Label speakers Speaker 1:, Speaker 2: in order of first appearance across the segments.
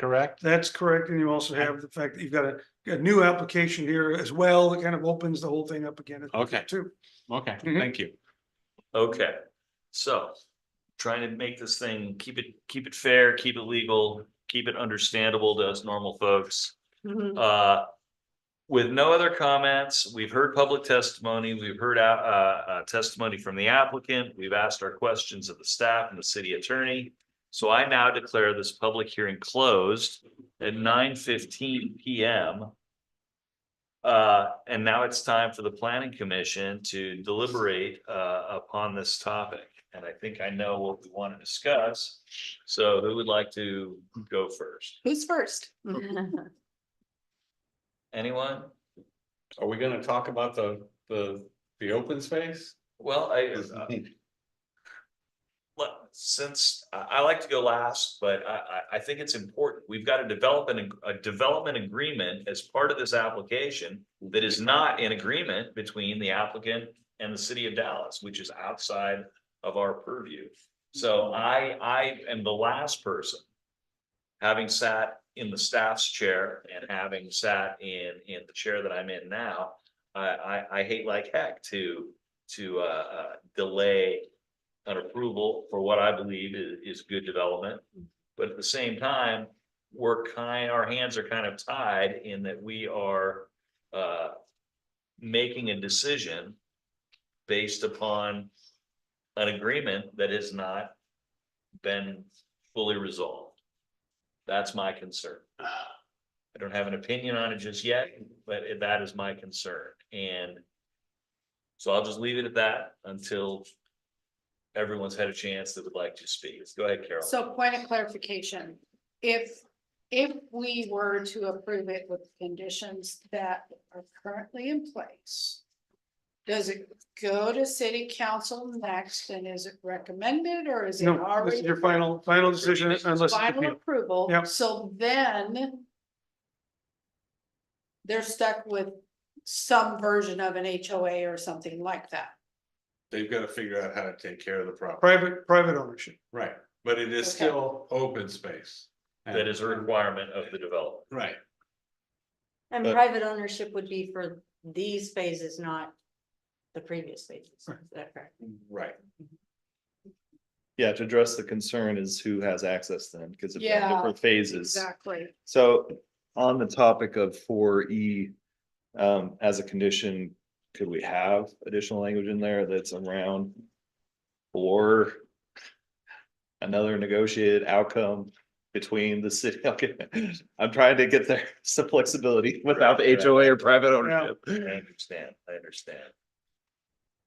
Speaker 1: correct?
Speaker 2: That's correct, and you also have the fact that you've got a, a new application here as well, that kind of opens the whole thing up again.
Speaker 1: Okay.
Speaker 2: Too.
Speaker 1: Okay,
Speaker 2: Mhm.
Speaker 1: thank you.
Speaker 3: Okay, so trying to make this thing, keep it, keep it fair, keep it legal, keep it understandable to us normal folks. Uh, with no other comments, we've heard public testimony, we've heard uh, uh, testimony from the applicant, we've asked our questions of the staff and the city attorney. So I now declare this public hearing closed at nine fifteen PM. Uh, and now it's time for the planning commission to deliberate uh upon this topic. And I think I know what we want to discuss. So who would like to go first?
Speaker 4: Oh, Who's first?
Speaker 3: Anyone?
Speaker 1: Are we gonna talk about the, the, the open space?
Speaker 3: Well, I, uh, let- since I I like to go last, but I I I think it's important. We've got to develop an ag- a development agreement as part of this application. That is not in agreement between the applicant and the city of Dallas, which is outside of our purview. So I I am the last person. Having sat in the staff's chair and having sat in in the chair that I'm in now. I I I hate like heck to to uh uh delay an approval for what I believe is, is good development. But at the same time, we're kind, our hands are kind of tied in that we are, uh, making a decision based upon an agreement that has not been fully resolved. That's my concern. I don't have an opinion on it just yet, but that is my concern. And so I'll just leave it at that until everyone's had a chance that would like to speak. Go ahead, Carol.
Speaker 4: So point of clarification, if, if we were to approve it with conditions that are currently in place. Does it go to city council next and is it recommended or is it
Speaker 2: No, this is
Speaker 4: already?
Speaker 2: your final, final decision unless. it's
Speaker 4: Final
Speaker 2: appealed.
Speaker 4: approval,
Speaker 2: Yep.
Speaker 4: so then. They're stuck with some version of an HOA or something like that.
Speaker 5: They've gotta figure out how to take care of the problem,
Speaker 2: Private, private ownership.
Speaker 5: right, but it is
Speaker 4: Okay.
Speaker 5: still open space.
Speaker 3: That is a requirement of the development.
Speaker 5: Right,
Speaker 6: And
Speaker 5: But-
Speaker 6: private ownership would be for these phases, not the previous phases, is that correct?
Speaker 5: right,
Speaker 7: Yeah, to address the concern is who has access then, because it's
Speaker 4: Yeah,
Speaker 7: different phases.
Speaker 4: Exactly.
Speaker 7: So on the topic of four E, um, as a condition, could we have additional language in there that's around? Or another negotiated outcome between the city, okay, I'm trying to get there, some flexibility without the HOA or private ownership.
Speaker 3: I understand, I understand.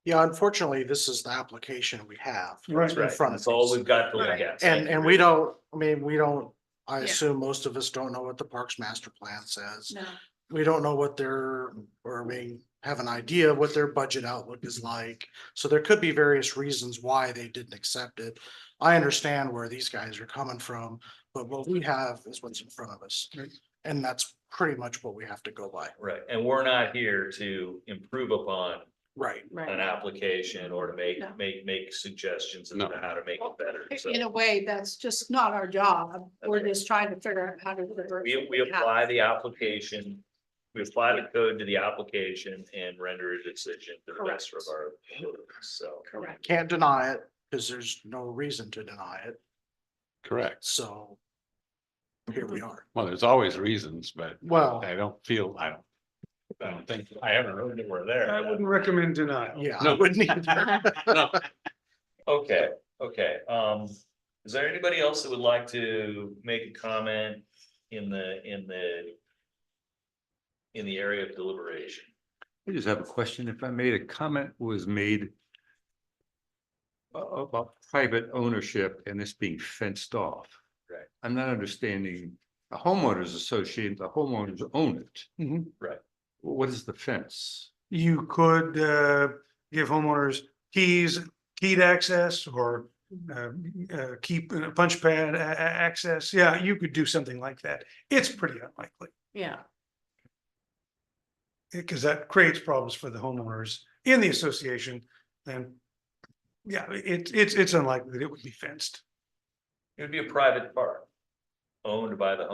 Speaker 8: Yeah, unfortunately, this is the application we have.
Speaker 2: Right.
Speaker 3: Right,
Speaker 8: front of
Speaker 3: that's all
Speaker 8: us.
Speaker 3: we've got to look at.
Speaker 8: And, and we don't, I mean, we don't, I
Speaker 4: Yeah.
Speaker 8: assume most of us don't know what the Parks Master Plan says.
Speaker 4: No.
Speaker 8: We don't know what their, or we have an idea of what their budget outlook is like. So there could be various reasons why they didn't accept it. I understand where these guys are coming from, but what we have is what's in front of us.
Speaker 2: Right.
Speaker 8: And that's pretty much what we have to go by.
Speaker 3: Right, and we're not here to improve upon
Speaker 8: Right.
Speaker 3: an
Speaker 6: Right.
Speaker 3: application or to make,
Speaker 4: No.
Speaker 3: make, make suggestions as
Speaker 1: No.
Speaker 3: to how to make it better. So
Speaker 4: In a way, that's just not our job. We're just trying to figure out how to deliver.
Speaker 3: we, we apply the application, we apply the code to the application and render a decision to the rest of our, so.
Speaker 4: Correct.
Speaker 8: Can't deny it because there's no reason to deny it.
Speaker 1: Correct.
Speaker 8: So here we are.
Speaker 1: Well, there's always reasons, but
Speaker 8: Mm-hmm. Well,
Speaker 1: I don't feel, I don't. I
Speaker 3: Um,
Speaker 1: don't think, I haven't heard that we're there.
Speaker 2: I wouldn't recommend denial.
Speaker 8: yeah, I
Speaker 1: No.
Speaker 8: wouldn't either.
Speaker 1: No,
Speaker 3: Okay, okay, um, is there anybody else that would like to make a comment in the, in the. In the area of deliberation?
Speaker 9: I just have a question. If I made a comment was made a- about private ownership and this being fenced off.
Speaker 3: Right.
Speaker 9: I'm not understanding, a homeowners association, the homeowners own it.
Speaker 2: Mhm.
Speaker 3: Right.
Speaker 9: Wh- What is the fence?
Speaker 2: You could uh give homeowners keys, keyed access or uh,
Speaker 4: Mm-hmm.
Speaker 2: uh, keep a punch pad a- a- access. Yeah, you could do something like that. It's pretty unlikely
Speaker 6: Yeah,
Speaker 2: because eh, that creates problems for the homeowners in the association. And yeah, it it's it's unlikely that it would be fenced.
Speaker 3: It would be a private park. Owned by the